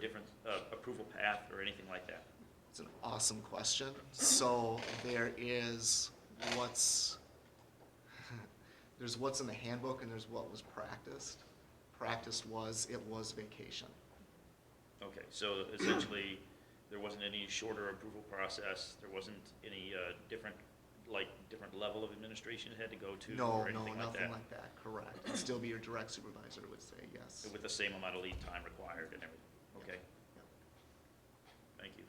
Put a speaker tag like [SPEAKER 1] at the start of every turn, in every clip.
[SPEAKER 1] different uh, approval path or anything like that?
[SPEAKER 2] It's an awesome question. So there is what's, there's what's in the handbook and there's what was practiced. Practiced was, it was vacation.
[SPEAKER 1] Okay, so essentially, there wasn't any shorter approval process, there wasn't any uh, different, like, different level of administration it had to go to
[SPEAKER 2] No,
[SPEAKER 1] or
[SPEAKER 2] no,
[SPEAKER 1] anything like
[SPEAKER 2] nothing
[SPEAKER 1] that?
[SPEAKER 2] like that, correct. It'd still be your direct supervisor would say yes.
[SPEAKER 1] With the same amount of lead time required and everything? Okay,
[SPEAKER 2] Yeah.
[SPEAKER 1] thank you.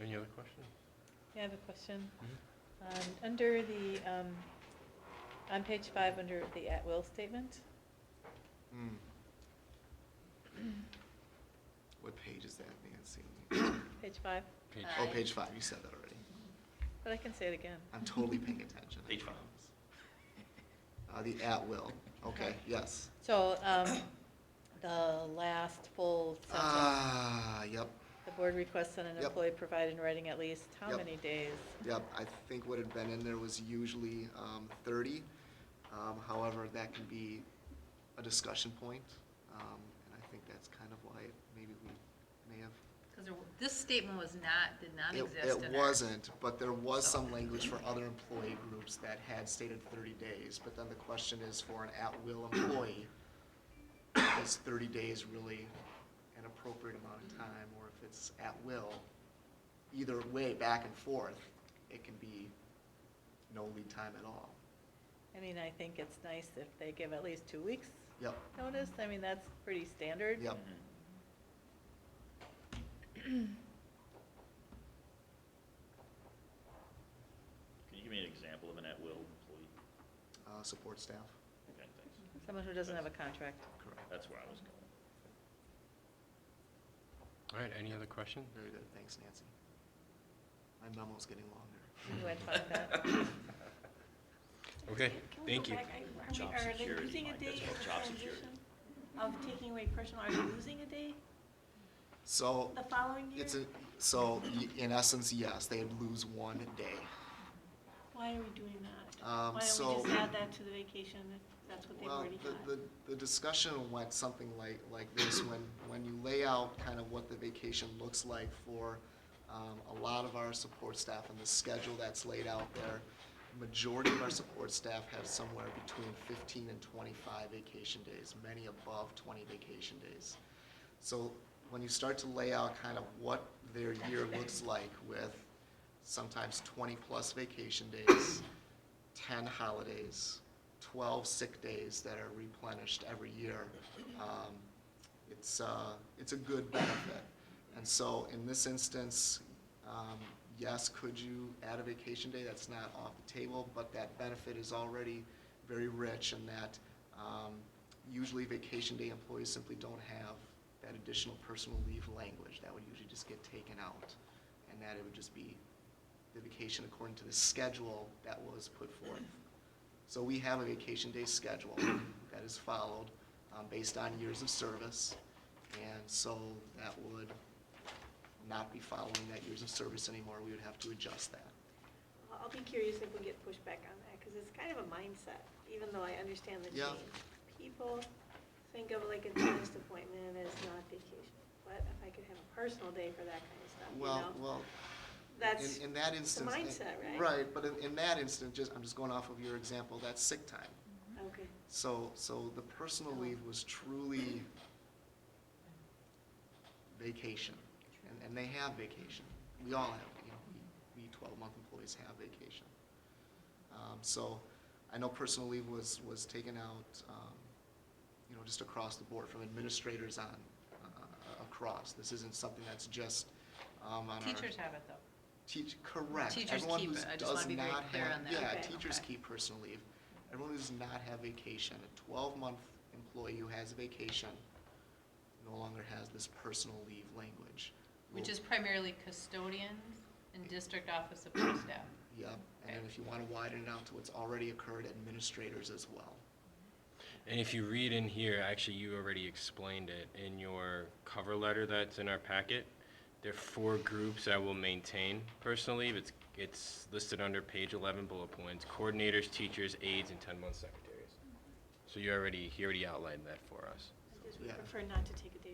[SPEAKER 3] Any other questions?
[SPEAKER 4] Yeah, I have a question. Um, Under the, um, on page five, under the at-will statement,
[SPEAKER 2] Hmm. What page is that, Nancy?
[SPEAKER 4] page five,
[SPEAKER 3] Page-
[SPEAKER 2] Oh, page five, you said that already.
[SPEAKER 4] but I can say it again.
[SPEAKER 2] I'm totally paying attention. I
[SPEAKER 1] Page five.
[SPEAKER 2] promise. Uh, the at-will, okay, yes.
[SPEAKER 4] So um, the last full sentence,
[SPEAKER 2] Ah, yep,
[SPEAKER 4] the board requests that an
[SPEAKER 2] Yep.
[SPEAKER 4] employee provide in writing at least how
[SPEAKER 2] Yep.
[SPEAKER 4] many days?
[SPEAKER 2] yep. I think what had been in there was usually um, 30. Um, However, that can be a discussion point, um, and I think that's kind of why maybe we may have.
[SPEAKER 5] Because this statement was not, did not
[SPEAKER 2] It-
[SPEAKER 5] exist
[SPEAKER 2] It
[SPEAKER 5] in our.
[SPEAKER 2] wasn't, but there was
[SPEAKER 5] So-
[SPEAKER 2] some language for other employee groups that had stated 30 days. But then the question is, for an at-will employee, is 30 days really an appropriate amount of time? Or if it's at-will, either way, back and forth, it can be no lead time at all.
[SPEAKER 4] I mean, I think it's nice if they give at least two weeks
[SPEAKER 2] Yep,
[SPEAKER 4] notice. I mean, that's pretty standard.
[SPEAKER 2] yep.
[SPEAKER 1] Mhm. Mm-hmm. Can you give me an example of an at-will employee?
[SPEAKER 2] Uh, Support staff,
[SPEAKER 1] Okay, thanks.
[SPEAKER 4] Someone who doesn't have a contract.
[SPEAKER 2] correct.
[SPEAKER 1] That's where I was going.
[SPEAKER 3] All right, any other questions?
[SPEAKER 2] Very good, thanks, Nancy. My memo's getting longer.
[SPEAKER 4] You had fun with that?
[SPEAKER 3] Okay,
[SPEAKER 6] Can we
[SPEAKER 3] thank
[SPEAKER 6] go
[SPEAKER 3] you.
[SPEAKER 6] back? Are we-
[SPEAKER 1] Job
[SPEAKER 6] Are
[SPEAKER 1] security,
[SPEAKER 6] they losing a
[SPEAKER 1] Mike, that's
[SPEAKER 6] day
[SPEAKER 1] called
[SPEAKER 6] in the
[SPEAKER 1] job security.
[SPEAKER 6] transition of taking away personal? Are they losing a day
[SPEAKER 2] So.
[SPEAKER 6] the following year?
[SPEAKER 2] It's a, so y- in essence, yes, they'd lose one day.
[SPEAKER 6] Why are we doing that?
[SPEAKER 2] Um,
[SPEAKER 6] Why don't
[SPEAKER 2] so-
[SPEAKER 6] we just add that to the vacation if that's what they've
[SPEAKER 2] Well,
[SPEAKER 6] already
[SPEAKER 2] the-
[SPEAKER 6] had?
[SPEAKER 2] The, the discussion went something like, like this, when, when you lay out kind of what the vacation looks like for um, a lot of our support staff and the schedule that's laid out there, majority of our support staff have somewhere between fifteen and twenty-five vacation days, many above twenty vacation days. So when you start to lay out kind of what their year looks like with sometimes twenty-plus vacation days, ten holidays, twelve sick days that are replenished every year. Um, It's, uh, it's a good benefit. And so in this instance, um, yes, could you add a vacation day? That's not off the table, but that benefit is already very rich in that um, usually vacation day employees simply don't have that additional personal leave language. That would usually just get taken out. And that it would just be the vacation according to the schedule that was put forth. So we have a vacation day schedule that is followed um, based on years of service. And so that would not be following that years of service anymore. We would have to adjust that.
[SPEAKER 7] I'll- I'll be curious if we get pushback on that, because it's kind of a mindset, even though I understand the
[SPEAKER 2] Yeah.
[SPEAKER 7] change. People think of like a dentist appointment as not vacation, but if I could have a personal day for that kind of stuff, you
[SPEAKER 2] Well,
[SPEAKER 7] know?
[SPEAKER 2] well,
[SPEAKER 7] That's,
[SPEAKER 2] in, in that instance.
[SPEAKER 7] mindset, right?
[SPEAKER 2] Right, but in, in that instance, just, I'm just going off of your example, that's sick time.
[SPEAKER 7] okay,
[SPEAKER 2] So, so the personal leave was truly vacation, and, and they have vacation. We all have, you know, we, we twelve-month employees have vacation. Um, so, I know personal leave was, was taken out, um, you know, just across the board, from administrators on, uh, across. This isn't something that's just, um, on our.
[SPEAKER 5] Teachers have it, though.
[SPEAKER 2] Teach, correct.
[SPEAKER 5] Teachers
[SPEAKER 2] Everyone
[SPEAKER 5] keep
[SPEAKER 2] who
[SPEAKER 5] it. I just
[SPEAKER 2] does
[SPEAKER 5] wanna be very
[SPEAKER 2] not
[SPEAKER 5] clear
[SPEAKER 2] have-
[SPEAKER 5] on that.
[SPEAKER 2] Yeah,
[SPEAKER 7] Okay.
[SPEAKER 2] teachers
[SPEAKER 5] Okay.
[SPEAKER 2] keep personal leave. Everyone who does not have vacation, a twelve-month employee who has a vacation no longer has this personal leave language.
[SPEAKER 5] Which
[SPEAKER 2] Well,
[SPEAKER 5] is primarily custodians and district office support staff.
[SPEAKER 2] Yep, and then if you want to widen it out to what's already occurred, administrators as well.
[SPEAKER 3] And if you read in here, actually, you already explained it in your cover letter that's in our packet. There are four groups I will maintain personally. It's, it's listed under page 11 bullet points, coordinators, teachers, aides, and 10-month secretaries. So you already, he already outlined that for us.
[SPEAKER 6] I just
[SPEAKER 2] Yeah.
[SPEAKER 6] would prefer not to take a day